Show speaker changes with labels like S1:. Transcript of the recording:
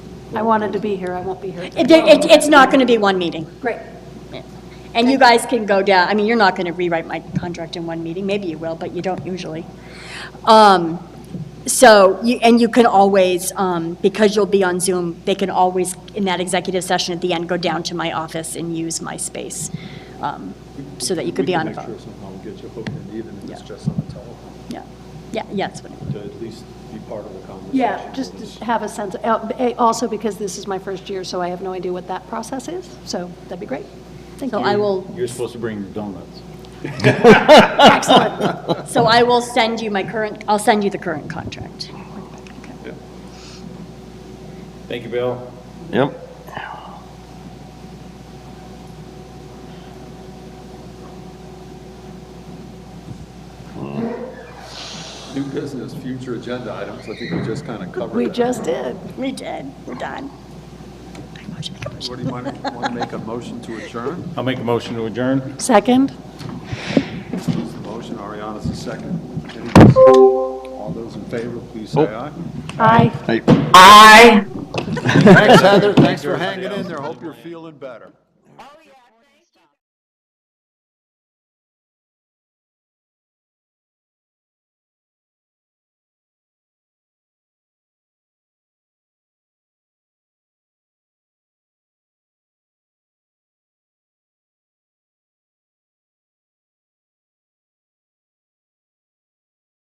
S1: I wanted to be here, I won't be here.
S2: It- it- It's not going to be one meeting.
S1: Great.
S2: And you guys can go down, I mean, you're not going to rewrite my contract in one meeting, maybe you will, but you don't usually. Um, So, you- and you can always, um, because you'll be on Zoom, they can always, in that executive session at the end, go down to my office and use my space, um, so that you could be on a
S3: We can
S2: phone.
S3: make sure somehow we get you hooked in, even if it's
S2: Yeah.
S3: just on the telephone,
S2: Yeah, yeah, yeah, that's what,
S3: to at least be part of the conversation.
S1: Yeah, just to have a sense, uh, also because this is my first year, so I have no idea what that process is, so that'd be great. Thank
S2: so
S1: you.
S2: I will,
S4: You're supposed to bring your donuts.
S1: Excellent.
S2: so I will send you my current, I'll send you the current contract.
S4: Thank you, Bill.
S5: Yep.
S3: New business, future agenda items, I think we just kind of covered that.
S1: We just did.
S2: We did, we're done. I want you to make a
S3: What
S2: motion.
S3: do you want, want to make a motion to adjourn?
S4: I'll make a motion to adjourn.
S1: Second?
S3: Who's the motion, Ariana's the second. Any discussion? All those in favor, please say aye.
S1: Aye.
S3: Thanks, Heather, thanks for hanging in there, hope you're feeling better.